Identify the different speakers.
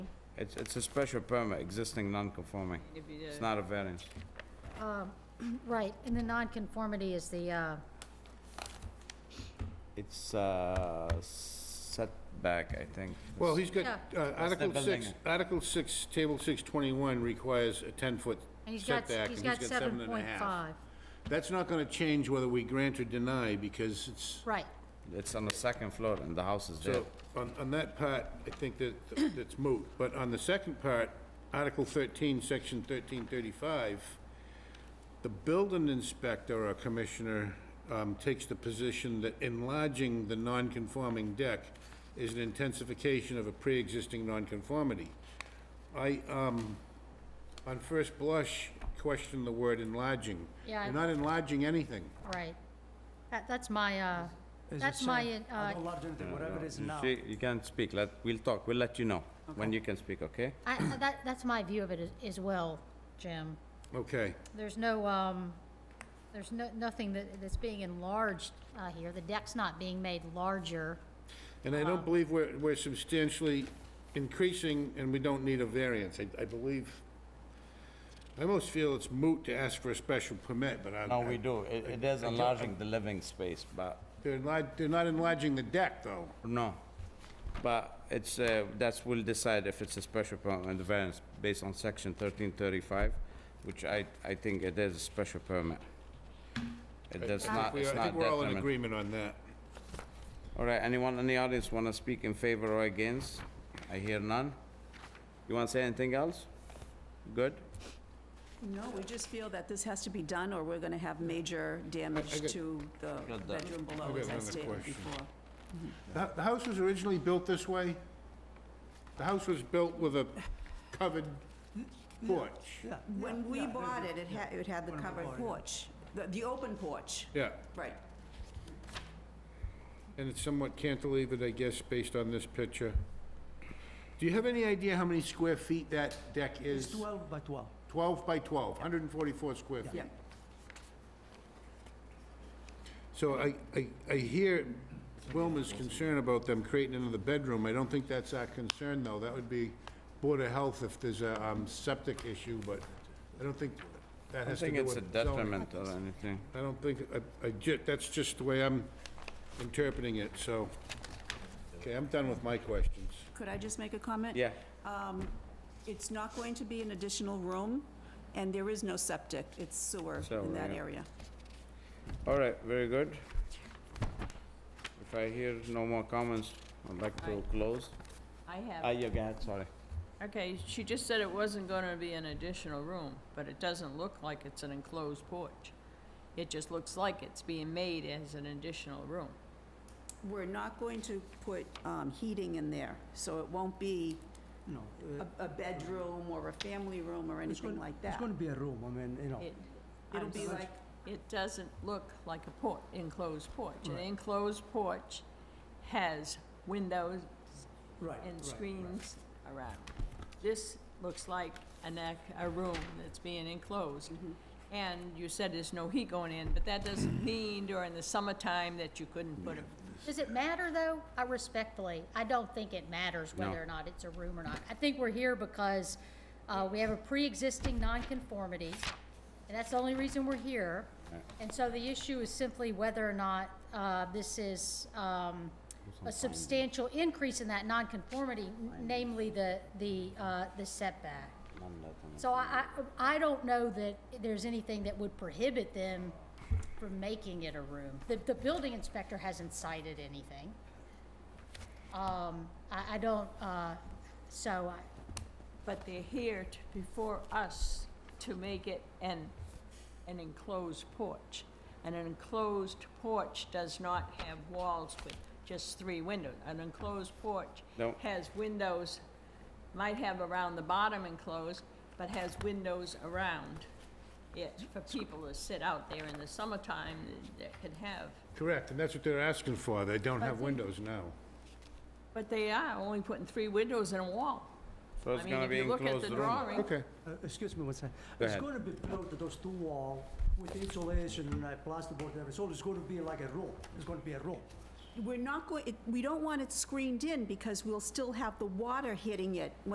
Speaker 1: It's, it's a special permit, existing non-conforming.
Speaker 2: If you uh,
Speaker 1: It's
Speaker 2: did-
Speaker 1: not a variance.
Speaker 3: Right, and the nonconformity is the, uh,
Speaker 1: It's uh, setback, I think.
Speaker 4: Well, he's got,
Speaker 3: Yeah.
Speaker 4: uh, Article
Speaker 1: building.
Speaker 4: 6, Article 6, Table 621 requires a 10-foot
Speaker 3: and he's got,
Speaker 4: setback, and
Speaker 3: he's got
Speaker 4: seven
Speaker 3: seven
Speaker 4: and a
Speaker 3: point
Speaker 4: half.
Speaker 3: five.
Speaker 4: That's not gonna change whether we grant or deny, because it's,
Speaker 3: Right,
Speaker 1: It's on the second floor and the house is there.
Speaker 4: so, on, on that part, I think that, that's moot. But on the second part, Article 13, Section 1335, the building inspector or commissioner um, takes the position that enlarging the non-conforming deck is an intensification of a pre-existing nonconformity. I, um, on first blush, question the word enlarging.
Speaker 3: Yeah, I-
Speaker 4: You're not enlarging anything.
Speaker 3: right. That, that's my, uh,
Speaker 5: As I
Speaker 3: that's my,
Speaker 5: said,
Speaker 3: uh,
Speaker 5: I don't love them, they- whatever it is
Speaker 1: You
Speaker 5: now.
Speaker 1: see, You can't speak, let, we'll talk, we'll let you know when you can speak, okay?
Speaker 3: I, that, that's my view of it as, as well, Jim.
Speaker 4: Okay.
Speaker 3: There's no, um, there's no, nothing that, that's being enlarged, uh, here. The deck's not being made larger.
Speaker 4: And I don't believe we're, we're substantially increasing, and we don't need a variance, I, I believe. I almost feel it's moot to ask for a special permit, but I.
Speaker 1: No, we do. It, it is enlarging the living space, but,
Speaker 4: They're not, they're not enlarging the deck, though.
Speaker 1: no. But it's, uh, that's, we'll decide if it's a special permit and the variance based on section thirteen thirty-five, which I, I think it is a special permit. It does
Speaker 4: I think
Speaker 1: not,
Speaker 4: we
Speaker 1: it's
Speaker 4: are- I
Speaker 1: not
Speaker 4: think we're all in
Speaker 1: detrimental.
Speaker 4: agreement on that.
Speaker 1: All right, anyone in the audience want to speak in favor or against? I hear none. You want to say anything else? Good?
Speaker 6: No, we just feel that this has to be done, or we're gonna have major
Speaker 4: I- I
Speaker 6: damage
Speaker 4: got-
Speaker 6: to the
Speaker 1: Got that.
Speaker 6: bedroom below,
Speaker 4: got
Speaker 6: as I
Speaker 4: another
Speaker 6: stated
Speaker 4: question.
Speaker 6: before.
Speaker 4: The, the house was originally built this way? The house was built with a covered porch?
Speaker 5: Yeah,
Speaker 6: When
Speaker 5: yeah,
Speaker 6: we
Speaker 5: yeah, yeah,
Speaker 6: bought it, it
Speaker 5: yeah.
Speaker 6: had, it had the
Speaker 5: When we
Speaker 6: covered
Speaker 5: bought it.
Speaker 6: porch, the, the open porch,
Speaker 4: Yeah,
Speaker 6: right.
Speaker 4: and it's somewhat cantilevered, I guess, based on this picture. Do you have any idea how many square feet that deck is?
Speaker 5: It's 12 by 12.
Speaker 4: 12 by 12, 144 square feet.
Speaker 6: Yeah,
Speaker 4: So I, I, I hear Wilma's concern about them creating another bedroom. I don't think that's our concern, though. That would be Board of Health if there's a um, septic issue, but I don't think that
Speaker 1: I don't
Speaker 4: has to
Speaker 1: think
Speaker 4: do
Speaker 1: it's
Speaker 4: with
Speaker 1: a
Speaker 4: zoning.
Speaker 1: detriment or anything.
Speaker 4: I don't think, I, I ju, that's just the way I'm interpreting it, so. Okay, I'm done with my questions.
Speaker 6: could I just make a comment?
Speaker 1: Yeah,
Speaker 6: Um, It's not going to be an additional room, and there is no septic, it's sewer
Speaker 1: Sewer,
Speaker 6: in that
Speaker 1: yeah.
Speaker 6: area.
Speaker 1: all right, very good. If I hear no more comments, I'd like to close.
Speaker 2: I
Speaker 1: Ah,
Speaker 2: have,
Speaker 1: yeah, go ahead, sorry.
Speaker 2: okay, she just said it wasn't gonna be an additional room, but it doesn't look like it's an enclosed porch. It just looks like it's being made as an additional room.
Speaker 6: We're not going to put um, heating in there, so it won't be
Speaker 5: No, uh,
Speaker 6: a, a bedroom or a family room or
Speaker 5: it's
Speaker 6: anything
Speaker 5: gonna-
Speaker 6: like that.
Speaker 5: It's gonna be a room, I mean, you know.
Speaker 2: It,
Speaker 6: It'll
Speaker 2: I'm
Speaker 6: be
Speaker 2: sorry.
Speaker 6: like,
Speaker 2: It doesn't look like a porch, enclosed porch. An enclosed porch has windows
Speaker 5: Right, right,
Speaker 2: and
Speaker 5: right.
Speaker 2: screens around. This looks like an, ac- a room that's being enclosed.
Speaker 5: Mm-hmm.
Speaker 2: And you said there's no heat going in, but that doesn't mean during the summertime that you couldn't put a,
Speaker 3: Does it matter, though? I respectfully, I don't think it matters
Speaker 1: No.
Speaker 3: whether or not it's a room or not. I think we're here because uh, we have a pre-existing nonconformity, and that's the only reason we're here. And so the issue is simply whether or not uh, this is um, a substantial increase in that nonconformity, n- namely the, the uh, the setback. So I, I I don't know that there's anything that would prohibit them from making it a room. The, the building inspector hasn't cited anything. Um, I, I don't, uh, so I,
Speaker 2: but they're here t- before us to make it an, an enclosed porch. And an enclosed porch does not have walls with just three windows. An enclosed porch
Speaker 1: No.
Speaker 2: has windows, might have around the bottom enclosed, but has windows around it for people to sit out there in the summertime that could have.
Speaker 4: Correct, and that's what they're asking for. They don't have windows now.
Speaker 2: But they are only putting three windows and a wall.
Speaker 1: So it's gonna be
Speaker 2: I mean, if you look
Speaker 1: enclosed
Speaker 2: at the
Speaker 1: room.
Speaker 2: drawing,
Speaker 4: Okay,
Speaker 5: Uh, Excuse me one second.
Speaker 1: Go
Speaker 5: It's
Speaker 1: ahead.
Speaker 5: gonna be built with those two wall with insulation and uh, plasterboard and everything, so it's gonna be like a room. It's gonna be a room.
Speaker 6: we're not going, it- we don't want it screened in because we'll still have the water hitting it when